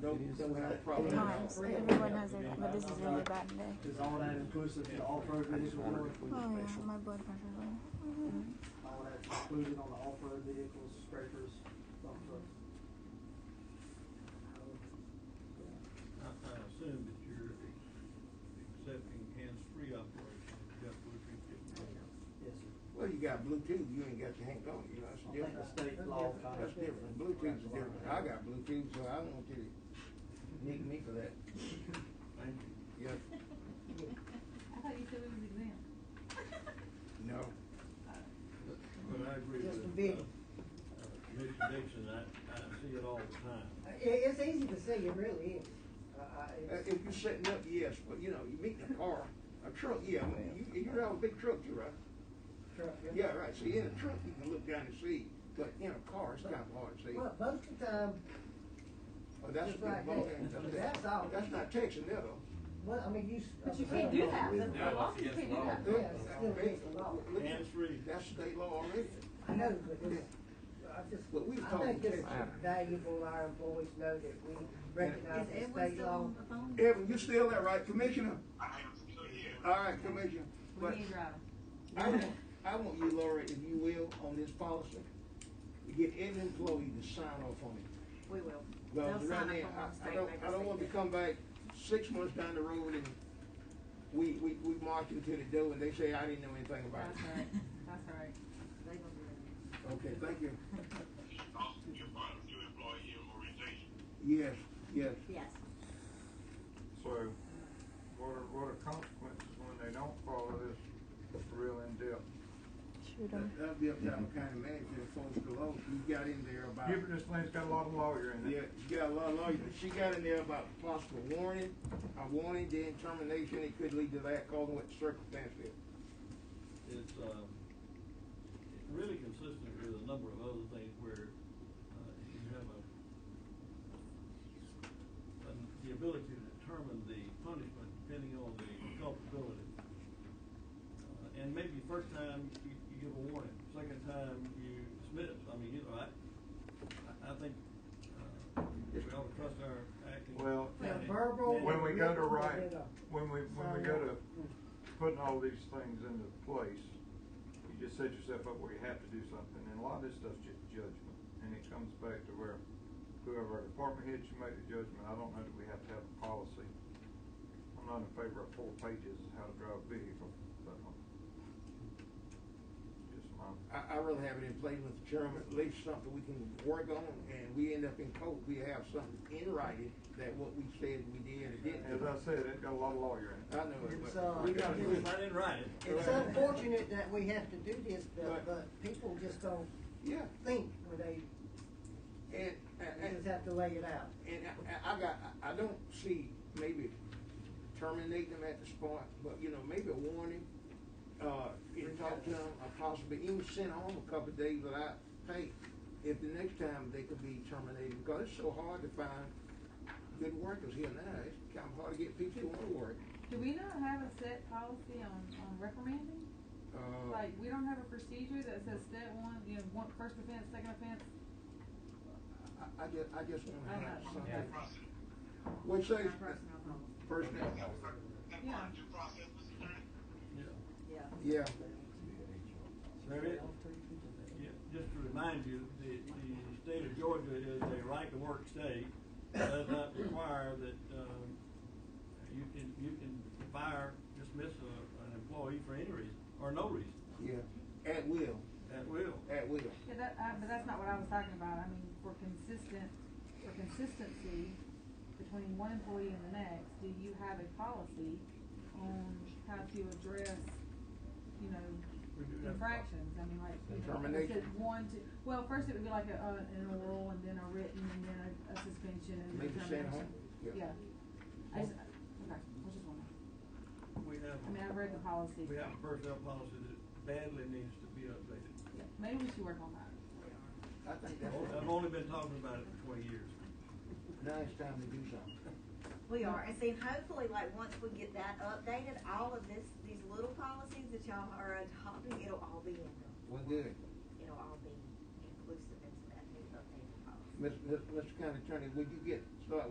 don't, don't have a problem. times. Everyone has it, but this is really bad day. Is all that inclusive in off-road vehicles, or Oh yeah, my blood pressure. went up. all that's included on the off-road vehicles, scrapers, dump trucks? I, I assume that you're accepting hands-free operation, Jeff Woodridge didn't. Yes, sir. Well, you got Bluetooth, you ain't got your hand on it, you know, that's I think different. the state law kind of. That's different, Bluetooth is different, I got Bluetooth, so I don't want you to nick me for that. Thank you. Yes, I thought you said we was exempt. no, But I agree Just a with, uh, bit. uh, Mr. Dixon, I, I see it all the time. It, it's easy to see, it really is. Uh, I, Uh, it's- if you're setting up, yes, but you know, you meet in a car, a truck, yeah, you, you drive a big truck, too, right? truck, yeah. Yeah, right, see, in a truck, you can look down and see, but in a car, it's kind of hard to see. Well, most of the time, Oh, that's a Just good like ball that. game. That's all. That's not Texan, that though. well, I mean, you. uh, But you can't do that, the the law says you can't do that. Yeah, it's still against the law. Look, Hands-free. That's state law already. I know, but it's, I just, But we were I talking think it's Texas. valuable our employees know that we recognize Is the Edwin state still law. on the phone? Evan, you still there, right, Commissioner? I am still here. All right, Commissioner. We But need to drive. I want, I want you, Laura, if you will, on this policy, to get every employee to sign off on it. We will. Because They'll sign right now, up on one I, I state, don't, make I us don't want to take come back six months down the road and we, we, we march into the door and they say, I didn't know anything that. about That's it. right, that's right. They gonna do that. Okay, thank you. Also, you're part of your employee organization. Yes, yes. Yes. So, what are, what are consequences when they don't follow this real in-depth? Shoot 'em. That- That'd be up to our county manager, folks below, she got in there about, Gibbon, this thing's got a lot of lawyer in yeah, it. she got a lot of lawyers, but she got in there about possible warning, a warning, then termination, it could lead to that, calling what the circumstance is. It's, um, it's really consistent with a number of other things where, uh, you have a, an- the ability to determine the punishment depending on the culpability. Uh, And maybe the first time you, you give a warning, second time you dismiss, I mean, you know, I, I, I think, uh, we ought to trust our acting. Well, Yeah, county verbal- manager. When we go to write, Yeah. when we, when we go to putting all these things into place, you just set yourself up where you have to do something, and a lot of this stuff's just judgment, and it comes back to where whoever our department heads should make the judgment, I don't know that we have to have a policy. I'm not in favor of four pages of how to drive a vehicle, but, um, just my. I, I really have it in place with the chairman, at least something we can work on, and we end up in court, we have something in writing that what we said we did or didn't. As do. I said, it got a lot of lawyer in I it. know it, uh, It's, but uh, we gotta do it. If I didn't write it. It's Right. unfortunate that we have to do this, Right. but, but people just don't Yeah, think when they, and, they and, just have to lay it out. And I- I, I got, I I don't see maybe terminating them at the spot, but you know, maybe a warning, uh, and talk to them, or possibly even send home a couple of days without pay. If the next time they could be terminated, because it's so hard to find good workers here now, it's kind of hard to get people who want to work. Do we not have a set policy on, on reprimanding? Uh, Like, we don't have a procedure that says step one, you know, one, first offense, second offense? I, I just, I just want to have Due something. process. What Our say, personnel policy. personnel? That was our- that part of due process, Mr. Attorney. Yeah. Yeah. Yeah, There is, yeah, just to remind you, the, the state of Georgia is a right-to-work state. Does not require that, um, you can, you can fire, dismiss a, an employee for any reason, or no reason, yeah, at will, at will. at will. Yeah, that, uh, but that's not what I was talking about. I mean, for consistent, for consistency between one employee and the next, do you have a policy on how to address, you We do know, have a infractions? I mean, like, you know, if it Termination. said one, two, well, first it would be like a, uh, an oral and then a written and then a, a suspension and then Maybe termination. send home, yeah. Yeah. I just, okay, I just wondering. We have, I mean, I've read the policy. we have a personnel policy that badly needs to be updated. Yeah, Maybe we should work on that. I think that's, I've only been talking about it for twenty years. now it's time to do something. We are, and see, hopefully, like, once we get that updated, all of this, these little policies that y'all are adopting, it'll all be in them. Well, good. It'll all be inclusive into that new updated policy. Mr. Mr. County Attorney, would you get, start